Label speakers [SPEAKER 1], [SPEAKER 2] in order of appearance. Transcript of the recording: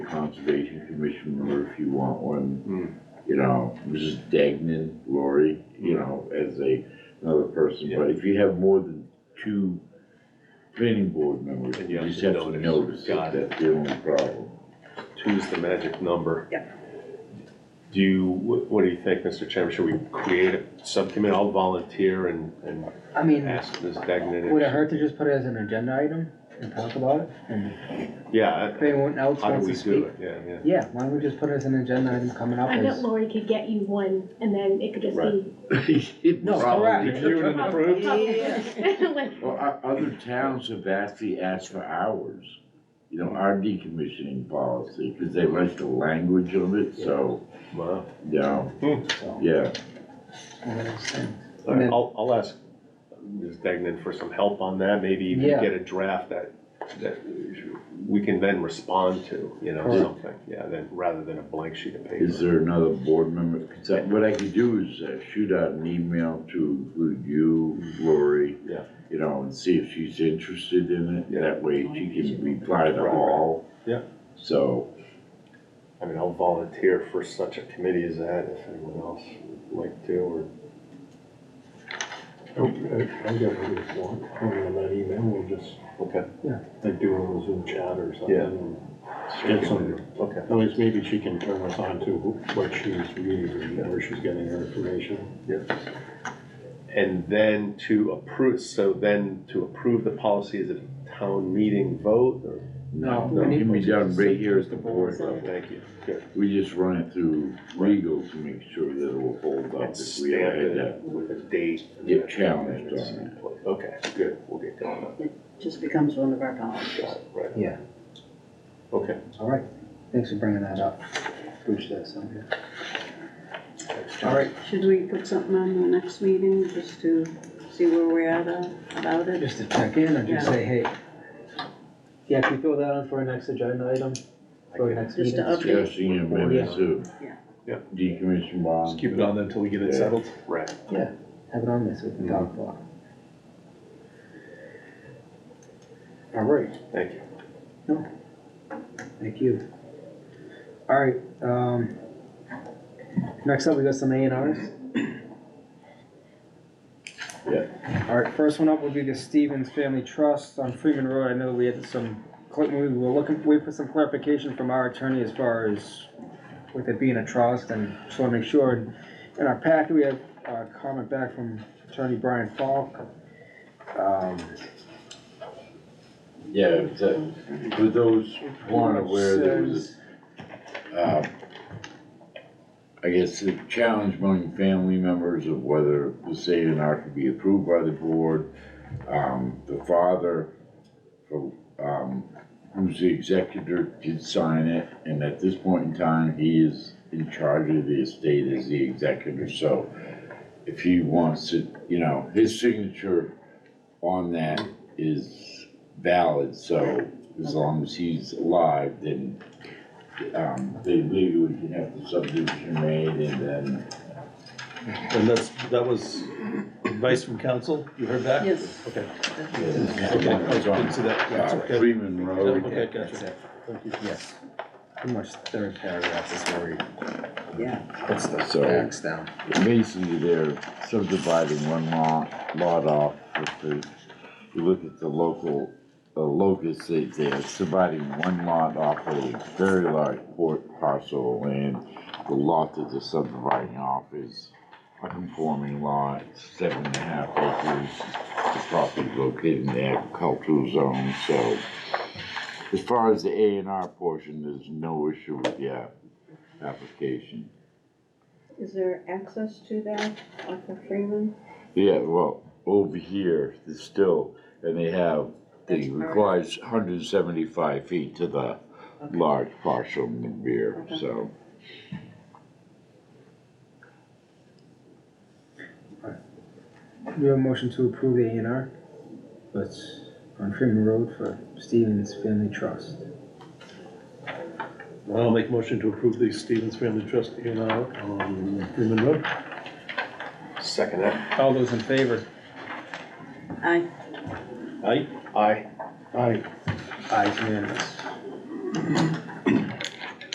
[SPEAKER 1] Conservation Commission member if you want
[SPEAKER 2] Hmm.
[SPEAKER 1] one. You know, Mrs. Dagnan, Lori, you know, as a, another person, but if you have more than two planning board members,
[SPEAKER 2] Then
[SPEAKER 1] you just have to notice it,
[SPEAKER 2] Got it.
[SPEAKER 1] that's the only problem.
[SPEAKER 2] Two's the magic number. Do you, what what do you think, Mr. Chairman? Should we create a subcommittee? I'll volunteer and, and
[SPEAKER 3] I mean,
[SPEAKER 2] ask Ms. Dagnan.
[SPEAKER 3] would it
[SPEAKER 2] if-
[SPEAKER 3] hurt to just put it as an agenda item and talk about it? And
[SPEAKER 2] Yeah,
[SPEAKER 3] if anyone else
[SPEAKER 2] how do
[SPEAKER 3] wants
[SPEAKER 2] we
[SPEAKER 3] to
[SPEAKER 2] do
[SPEAKER 3] speak?
[SPEAKER 2] it? Yeah, yeah.
[SPEAKER 3] Yeah, why don't we just put it as an agenda item coming up
[SPEAKER 4] I bet
[SPEAKER 3] as,
[SPEAKER 4] Lori could get you one, and then it could just be.
[SPEAKER 3] No,
[SPEAKER 2] Reviewed Oh, and approved?
[SPEAKER 4] Like,
[SPEAKER 1] Well, o- other towns have actually asked for hours, you know, our decommissioning policy, because they like the language of it, so,
[SPEAKER 2] Wow.
[SPEAKER 1] you know,
[SPEAKER 3] so,
[SPEAKER 1] yeah.
[SPEAKER 3] one of those things.
[SPEAKER 2] All right,
[SPEAKER 3] then-
[SPEAKER 2] I'll, I'll ask Ms. Degnan for some help on that, maybe even
[SPEAKER 3] Yeah.
[SPEAKER 2] get a draft that, that we can then respond to, you know,
[SPEAKER 3] Correct.
[SPEAKER 2] something, yeah, then, rather than a blank sheet of
[SPEAKER 1] Is
[SPEAKER 2] paper.
[SPEAKER 1] there another board member? 'Cause I- What I could do is uh, shoot out an email to include you, Lori.
[SPEAKER 2] Yeah.
[SPEAKER 1] You know, and see if she's interested in it.
[SPEAKER 2] Yeah.
[SPEAKER 1] That way she can reply to
[SPEAKER 2] Right.
[SPEAKER 1] all.
[SPEAKER 2] Yeah.
[SPEAKER 1] So,
[SPEAKER 2] I mean, I'll volunteer for such a committee as that, if anyone else would like to, or.
[SPEAKER 5] I Oh, uh, I got what you want, on that email, we'll just,
[SPEAKER 2] Okay.
[SPEAKER 5] like do a Zoom chat or something.
[SPEAKER 2] Yeah.
[SPEAKER 5] and Get some,
[SPEAKER 2] Okay,
[SPEAKER 5] at least maybe she can turn us on to what she's reading, and where she's getting her information.
[SPEAKER 2] and then to approve, so then to approve the policy, is it a town meeting vote, or?
[SPEAKER 1] no,
[SPEAKER 3] No, we
[SPEAKER 1] no,
[SPEAKER 3] need-
[SPEAKER 1] can be done right here at the board
[SPEAKER 2] Oh,
[SPEAKER 1] level.
[SPEAKER 2] Thank you, good.
[SPEAKER 1] We just run it through legal to make sure that it will hold up
[SPEAKER 2] And
[SPEAKER 1] if we ever
[SPEAKER 2] stamp
[SPEAKER 1] had
[SPEAKER 2] it
[SPEAKER 1] that.
[SPEAKER 2] with a date.
[SPEAKER 1] Get challenged on
[SPEAKER 2] Okay, good, we'll get going on
[SPEAKER 6] just becomes one of our policies.
[SPEAKER 2] that, right?
[SPEAKER 3] Yeah.
[SPEAKER 2] Okay.
[SPEAKER 3] All right, thanks for bringing that up. Appreciate that, Sylvia. All right,
[SPEAKER 6] Should we put something on the next meeting just to see where we're at uh, about it?
[SPEAKER 3] just to check in or just
[SPEAKER 6] Yeah.
[SPEAKER 3] say, hey. Yeah, can you throw that on for our next agenda item, for our next
[SPEAKER 6] Just
[SPEAKER 3] meeting?
[SPEAKER 6] to up-
[SPEAKER 1] Discussing amendments of
[SPEAKER 6] Yeah.
[SPEAKER 2] Yeah.
[SPEAKER 1] decommission
[SPEAKER 7] Just
[SPEAKER 1] bond.
[SPEAKER 7] keep it on then until we get it settled.
[SPEAKER 2] Right.
[SPEAKER 3] Have it on this, we can talk about it. All right,
[SPEAKER 2] Thank you.
[SPEAKER 3] Thank you. All right, um, next up, we got some A and Rs.
[SPEAKER 1] Yeah.
[SPEAKER 3] All right, first one up will be the Stevens Family Trust on Freeman Road. I know we had some, we were looking, waiting for some clarification from our attorney as far as with it being a trust and just wanna make sure. And In our packet, we have a comment back from attorney Brian Falk. Um,
[SPEAKER 1] Yeah, it's a- for those who aren't aware, there was a
[SPEAKER 3] says-
[SPEAKER 1] uh, I guess the challenge among family members of whether the say and R could be approved by the board. Um, the father, who, um, who's the executor, did sign it, and at this point in time, he is in charge of the estate as the executor, so if he wants to, you know, his signature on that is valid, so as long as he's alive, then um, they legally can have the subdivision made and then,
[SPEAKER 7] And that's, that was advice from council, you heard that?
[SPEAKER 6] Yes.
[SPEAKER 7] Okay. Okay,
[SPEAKER 1] Okay,
[SPEAKER 7] I didn't see that, that's
[SPEAKER 1] uh,
[SPEAKER 7] okay.
[SPEAKER 1] Freeman
[SPEAKER 7] Okay,
[SPEAKER 1] Road.
[SPEAKER 3] That's
[SPEAKER 7] gotcha.
[SPEAKER 3] it.
[SPEAKER 7] Thank you.
[SPEAKER 3] Yes. Pretty much third paragraph is where he. Yeah. Puts the
[SPEAKER 1] So-
[SPEAKER 3] facts down.
[SPEAKER 1] Basically, they're subdividing one lot, lot off with the, you look at the local, uh, locus, they, they're subdividing one lot off a very large port parcel of land. The lot that they're subdividing off is a conforming lot, seven and a half acres. The property located in the agricultural zone, so as far as the A and R portion, there's no issue with the app- application.
[SPEAKER 6] Is there access to that off of Freeman?
[SPEAKER 1] Yeah, well, over here, it's still, and they have, they
[SPEAKER 6] That's all right.
[SPEAKER 1] requires hundred and seventy-five feet to the
[SPEAKER 6] Okay.
[SPEAKER 1] large parcel in the rear,
[SPEAKER 6] Okay.
[SPEAKER 1] so.
[SPEAKER 3] Do you have a motion to approve the A and R? That's on Freeman Road for Stevens Family Trust.
[SPEAKER 7] I'll make a motion to approve the Stevens Family Trust A and R on Freeman Road.
[SPEAKER 2] Second that.
[SPEAKER 3] All those in favor?
[SPEAKER 6] I,
[SPEAKER 7] Aye.
[SPEAKER 2] Aye.
[SPEAKER 7] Aye.
[SPEAKER 3] Aye, unanimous.